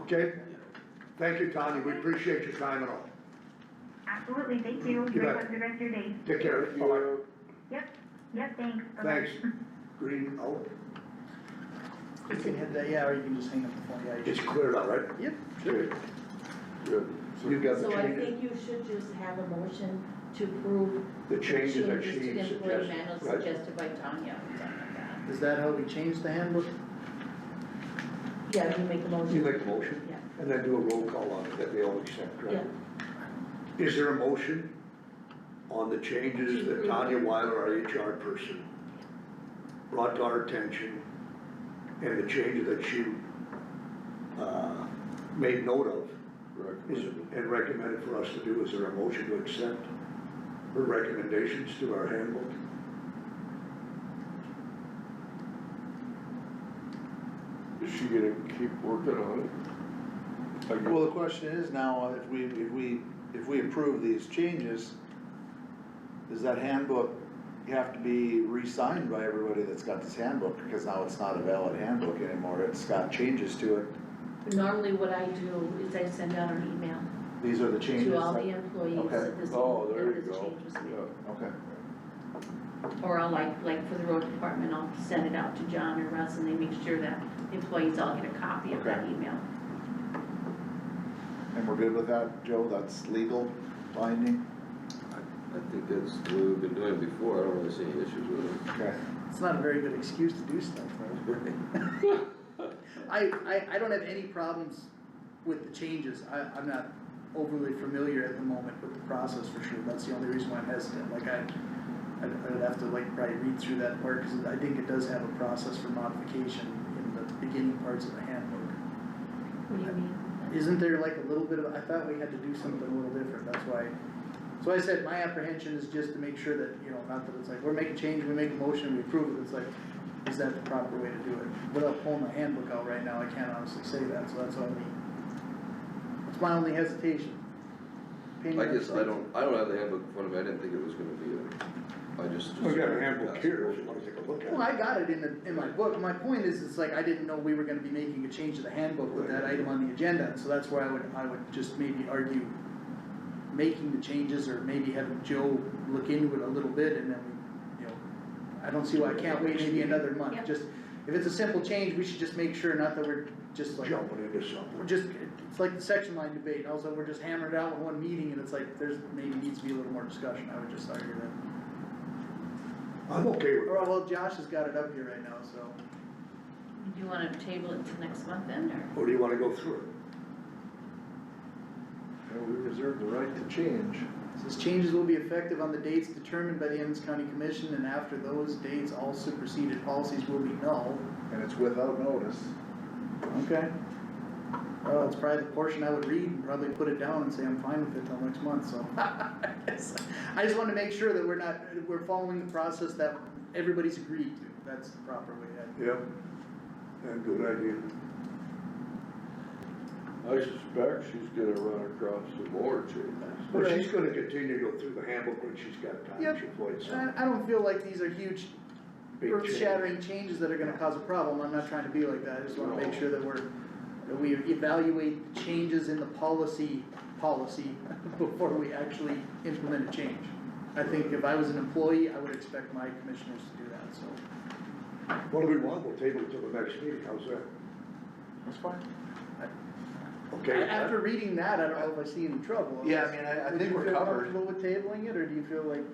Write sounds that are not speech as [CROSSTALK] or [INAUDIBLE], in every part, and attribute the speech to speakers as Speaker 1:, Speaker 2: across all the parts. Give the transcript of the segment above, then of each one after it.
Speaker 1: Okay, thank you, Tanya, we appreciate your time and all.
Speaker 2: Absolutely, thank you.
Speaker 1: You
Speaker 2: Enjoy
Speaker 1: bet.
Speaker 2: the rest of your day.
Speaker 1: Take care. Bye-bye.
Speaker 2: Yep, yep, thanks. Bye-bye.
Speaker 1: Thanks. Green, oh,
Speaker 3: You can hit that, yeah, or you can just hang up the phone, yeah. you
Speaker 1: it's
Speaker 3: can-
Speaker 1: cleared out, right?
Speaker 3: Yep.
Speaker 1: Good. Good. You got the
Speaker 4: So I
Speaker 1: changes,
Speaker 4: think you should just have a motion to approve.
Speaker 1: the changes that
Speaker 4: changes
Speaker 1: she
Speaker 4: to the
Speaker 1: suggested,
Speaker 4: employee manual
Speaker 1: right?
Speaker 4: suggested by Tanya.
Speaker 3: Is that how we change the handbook?
Speaker 4: Yeah, you make a motion.
Speaker 1: You make the motion,
Speaker 4: Yeah.
Speaker 1: and then do a roll call on it that they all accept, right? Is there a motion on the changes that Tanya Weiler, our HR person, brought to our attention and the changes that she, uh, made note of is, and recommended for us to do? Is there a motion to accept her recommendations to our handbook?
Speaker 5: Is she gonna keep working on it? Like,
Speaker 6: Well, the question is now, if we, if we, if we approve these changes, does that handbook have to be re-signed by everybody that's got this handbook? Because now it's not a valid handbook anymore, it's got changes to it,
Speaker 4: Normally what I do is I send out an email
Speaker 6: these are the changes.
Speaker 4: to all
Speaker 6: that-
Speaker 4: the employees
Speaker 6: Okay.
Speaker 4: that this,
Speaker 5: Oh, there
Speaker 4: that
Speaker 5: you
Speaker 4: this
Speaker 5: go,
Speaker 4: change was made.
Speaker 5: yeah,
Speaker 6: Okay,
Speaker 4: Or I'll like, like for the road department, I'll send it out to John or Russ and they make sure that employees all get a copy of that
Speaker 6: Okay.
Speaker 4: email.
Speaker 6: and we're good with that, Joe, that's legal binding?
Speaker 7: I think that's what we've been doing before, I don't really see any issues with it.
Speaker 6: Okay.
Speaker 3: It's not a very good excuse to do stuff, right? [LAUGHS] I, I, I don't have any problems with the changes, I, I'm not overly familiar at the moment with the process for sure, that's the only reason why I'm hesitant, like I, I'd, I'd have to like probably read through that part, cause I think it does have a process for modification in the beginning parts of the handbook.
Speaker 4: What do you mean?
Speaker 3: Isn't there like a little bit of, I thought we had to do something a little different, that's why. So I said, my apprehension is just to make sure that, you know, not that it's like, we're making change, we make a motion, we approve it, it's like, is that the proper way to do it? Without pulling the handbook out right now, I can't honestly say that, so that's all I mean. It's my only hesitation. Opinion
Speaker 7: I guess I
Speaker 3: states-
Speaker 7: don't, I don't have the handbook in front of me, I didn't think it was gonna be a, I just.
Speaker 1: We've got a handbook here, if you wanna take a look at it.
Speaker 3: Well, I got it in the, in my book, my point is, it's like, I didn't know we were gonna be making a change to the handbook with that item on the agenda, so that's where I would, I would just maybe argue making the changes, or maybe having Joe look into it a little bit, and then, we, you know, I don't see why I can't wait maybe another month,
Speaker 4: Yep.
Speaker 3: just, if it's a simple change, we should just make sure, not that we're just like,
Speaker 1: Jumping into
Speaker 3: we're
Speaker 1: something.
Speaker 3: just, it's like the section line debate, and also we're just hammered out in one meeting, and it's like, there's, maybe needs to be a little more discussion, I would just argue that.
Speaker 1: I'm okay with
Speaker 3: Or, well, Josh has got it up here right now, so.
Speaker 4: Do you wanna table it till next month then, or?
Speaker 1: Or do you wanna go through it?
Speaker 6: Yeah, we reserve the right to change.
Speaker 3: Says changes will be effective on the dates determined by the Emmons County Commission, and after those dates, all superseded policies will be null.
Speaker 6: And it's without notice.
Speaker 3: Okay. Well, that's probably the portion I would read and probably put it down and say I'm fine with it till next month, so. I just- [LAUGHS] I just wanna make sure that we're not, we're following the process that everybody's agreed to, that's the proper way. I-
Speaker 1: Yeah, yeah, good idea.
Speaker 5: I suspect she's gonna run across some more changes.
Speaker 1: Well, she's gonna continue to go through the handbook when she's got time,
Speaker 3: Yep. Uh,
Speaker 1: she avoids some
Speaker 3: I, I don't feel like these are huge,
Speaker 1: big change.
Speaker 3: earth-shattering changes that are gonna cause a problem, I'm not trying to be like that, I just wanna make sure that we're, that we evaluate the changes in the policy, policy, [LAUGHS] before we actually implement a change. I think if I was an employee, I would expect my commissioners to do that, so,
Speaker 1: What do we want, we'll table it till the next meeting, how's that?
Speaker 6: That's fine.
Speaker 1: Okay?
Speaker 3: after reading that, I don't know if I see any trouble.
Speaker 6: Yeah, I mean, I- I think we're covered.
Speaker 3: Would you feel comfortable with tabling it, or do you feel like,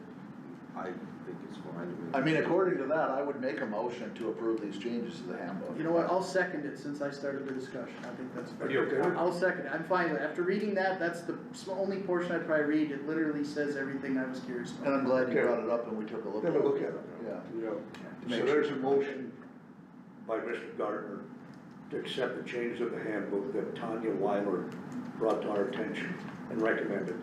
Speaker 7: I think it's fine.
Speaker 6: I mean, according to that, I would make a motion to approve these changes to the handbook.
Speaker 3: you know what, I'll second it since I started the discussion, I think that's fair.
Speaker 1: Are you okay with it?
Speaker 3: I'll second it, I'm fine with it, after reading that, that's the s- only portion I'd probably read, it literally says everything I was curious
Speaker 6: And
Speaker 3: about.
Speaker 6: I'm glad you brought it up and we took a look
Speaker 1: Then
Speaker 6: at it.
Speaker 1: we'll look at it.
Speaker 6: Yeah.
Speaker 5: Yeah.
Speaker 6: to make
Speaker 1: So
Speaker 6: sure.
Speaker 1: there's a motion by Mr. Gardner to accept the changes of the handbook that Tanya Weiler brought to our attention and recommended.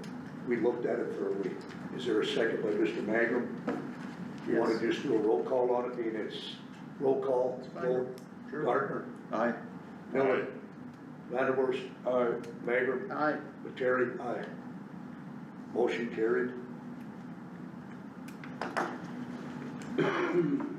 Speaker 1: We looked at it thoroughly. Is there a second by Mr. Magrum? You wanna
Speaker 3: Yes.
Speaker 1: just do a roll call on it, I mean, it's roll call,
Speaker 3: fine.
Speaker 1: vote, Gardner,
Speaker 6: Aye.
Speaker 1: Miller, Vanderwerst,
Speaker 5: Alright,
Speaker 1: Magrum,
Speaker 3: Aye.
Speaker 1: Terry, aye. Motion carried. Uh, [COUGHS]